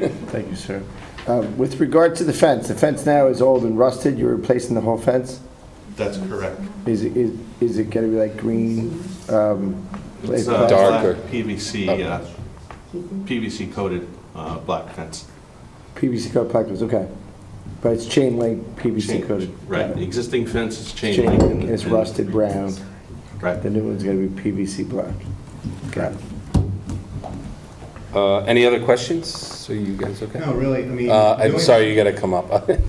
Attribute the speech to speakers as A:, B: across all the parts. A: Thank you, sir.
B: Uh, With regard to the fence, the fence now is old and rusted, you're replacing the whole fence?
C: That's correct.
B: Is it, is- is it going to be like green? um,
C: It's
B: like-
C: a
D: Darker.
C: black PVC, uh, PVC coated uh, black fence.
B: PVC coated placards, okay. But it's chain link PVC
C: Chain-
B: coated.
C: Right, the existing fence is chain
B: Chain
C: link.
B: link,
C: and-
B: it's
C: and-
B: rusted brown.
C: Right.
B: The new one's going to be PVC black. Got it.
D: Uh, Any other questions? Are you guys okay?
E: No, really, I mean.
D: Uh, I'm
E: doing-
D: sorry, you gotta come up.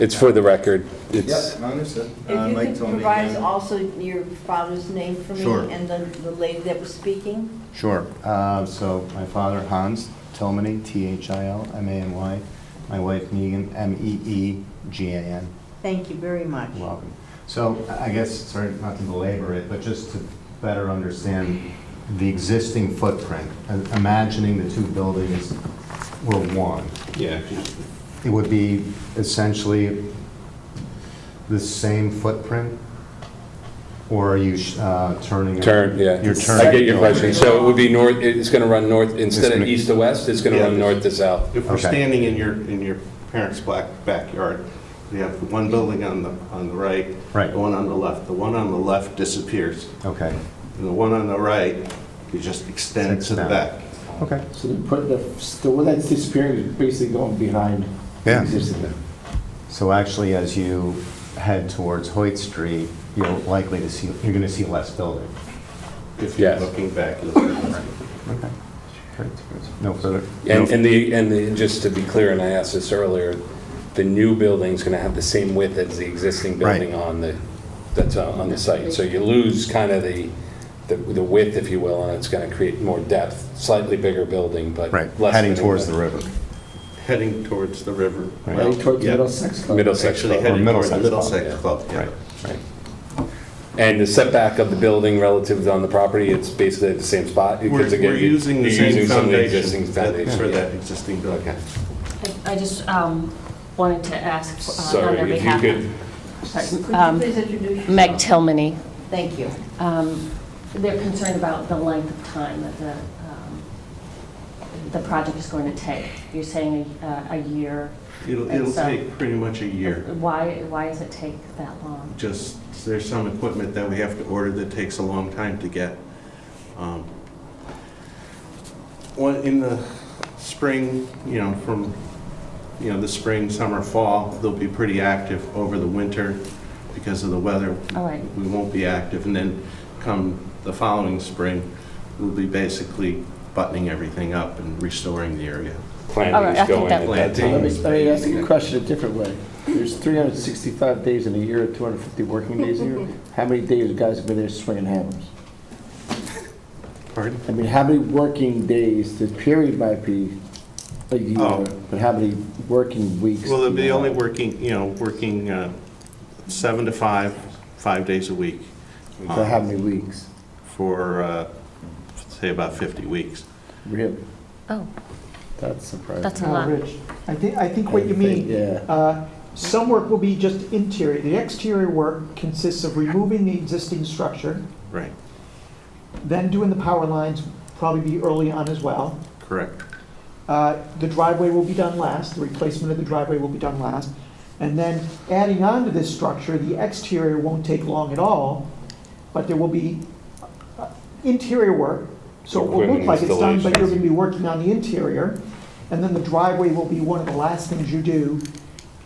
D: It's for the record. It's,
E: Yep, I understood. Uh,
F: If you
E: Mike
F: could
E: told me.
F: provide
E: um,
F: also your father's name for me
E: Sure.
F: and the the lady that was speaking.
E: Sure. Uh, So my father, Hans Tillmany, T-H-I-L-M-A-N-Y. My wife, Megan, E M-E-E-G-A-N.
F: Thank you very much.
E: You're welcome. So I I guess, sorry not to belabor it, but just to better understand the existing footprint, uh, imagining the two buildings were one,
C: Yeah, if you-
E: it would be essentially the same footprint? Or are you uh, turning?
D: turn, yeah.
E: You're turning.
D: I get your question. So it would be north, it's gonna run north, instead of
E: gonna-
D: east to west, it's gonna
C: Yeah.
D: run north to south.
C: if we're
E: Okay.
C: standing in your, in your parents' black backyard, you have the one building on the, on the right.
E: Right.
C: The one on the left. The one on the left disappears,
E: Okay,
C: and the one on the right, you just extend to the back.
E: okay.
B: So the, put the, the one that's disappearing is basically going behind. the
E: Yeah.
B: existing one.
E: So actually, as you head towards Hoyt Street, you're likely to see, you're going to see less building.
C: If you're
D: Yes.
C: looking back, you'll see.
E: Okay. No further?
D: And, and the, and the, just to be clear, and I asked this earlier, the new building's gonna have the same width as the existing
E: Right.
D: building on the, that's uh, on on the site. So you lose kind of the, the the width, if you will, and it's gonna create more depth, slightly bigger building, but
E: Right,
D: less.
E: heading
D: than-
E: towards the river.
C: heading towards the river. Well,
B: Right towards
C: yeah.
B: Middlesex Club.
D: Middlesex
C: Actually
D: Club.
C: heading towards
E: Middlesex
C: Middlesex
D: Club,
C: Club, yeah.
D: Right. And the setback of the building relative on the property, it's basically at the same spot?
C: We're
D: Because again,
C: we're
D: you-
C: using the
D: you're
C: same
D: using some of the
C: foundation
D: existing
C: that- for
D: foundation.
G: Uh,
C: that existing building.
G: I I just um, wanted to ask uh, on their
D: Sorry, if you
G: behalf.
D: could,
G: Sorry.
F: Could you
G: Um,
F: please introduce yourself?
G: Meg Tillmany.
F: Thank you.
G: Um, They're concerned about the length of time that the, um, the project is going to take. You're saying a- a year.
C: It'll,
G: And
C: it'll
G: so-
C: take pretty much a year.
G: Why, why does it take that long?
C: Just, there's some equipment that we have to order that takes a long time to get. Um, One, in the spring, you know, from, you know, the spring, summer, fall, they'll be pretty active over the winter because of the weather.
G: All right.
C: We won't be active, and then come the following spring, we'll be basically buttoning everything up and restoring the area.
G: All right, I
D: planning is
G: think
D: going
G: that-
D: at that
B: Let
D: time.
B: me, let me ask you a question a different way. There's 365 days in a year, 250 working days a year. How many days guys have been there swinging hammers?
C: Pardon?
B: I mean, how many working days, the period might be a
C: Oh.
B: year, but how many working weeks?
C: Well, they'll
B: do
C: be
B: you
C: only
B: have?
C: working, you know, working uh, seven to five, five days a week Um,
B: For how many weeks?
C: for, uh, say, about 50 weeks.
B: Really?
G: Oh,
B: That's surprising.
G: that's a
D: Uh,
H: Oh,
G: lot.
H: Rich, I think, I think what you
B: I think,
H: mean.
B: yeah.
H: uh, Some work will be just interior. The exterior work consists of removing the existing structure,
C: Right,
H: then doing the power lines, probably be early on as well.
C: correct.
H: Uh, The driveway will be done last, the replacement of the driveway will be done last. And then adding on to this structure, the exterior won't take long at all, but there will be uh, interior work. So it will look
D: Equipment
H: like it's done, but you're
D: installations.
H: going to be working on the interior. And then the driveway will be one of the last things you do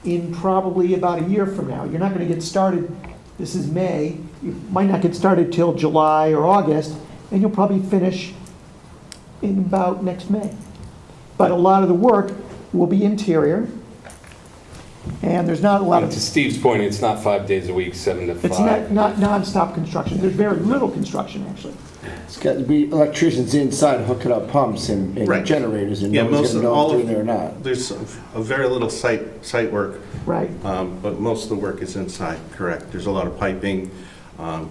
H: in probably about a year from now. You're not going to get started, this is May, you might not get started till July or August, and you'll probably finish in about next May. But a lot of the work will be interior, and there's not a lot
D: And To
H: of,
D: Steve's point, it's not five days a week, seven to
H: it's not,
D: five.
H: not nonstop construction, there's very little construction, actually.
B: It's got to be electricians inside hooking up pumps and
C: Right.
B: and generators, and
C: Yeah,
B: no one's
C: most
B: going to
C: of,
B: know
C: all
B: if
C: of,
B: they're doing it or not.
C: there's a very little site, site work,
H: Right,
C: um, but most of the work is inside, correct. There's a lot of piping, um,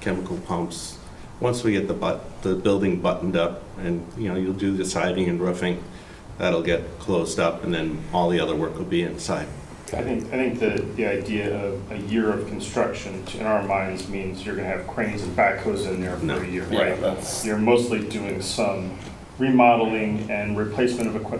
C: chemical pumps. Once we get the but, the building buttoned up, and, you know, you'll do the siding and roofing, that'll get closed up, and then all the other work will be inside.
I: I think, I think the, the idea of a year of construction in our minds means you're gonna have cranes and backhoes in there
C: No,
I: for a year.
C: yeah, that's-
I: You're mostly doing some remodeling and replacement of equipment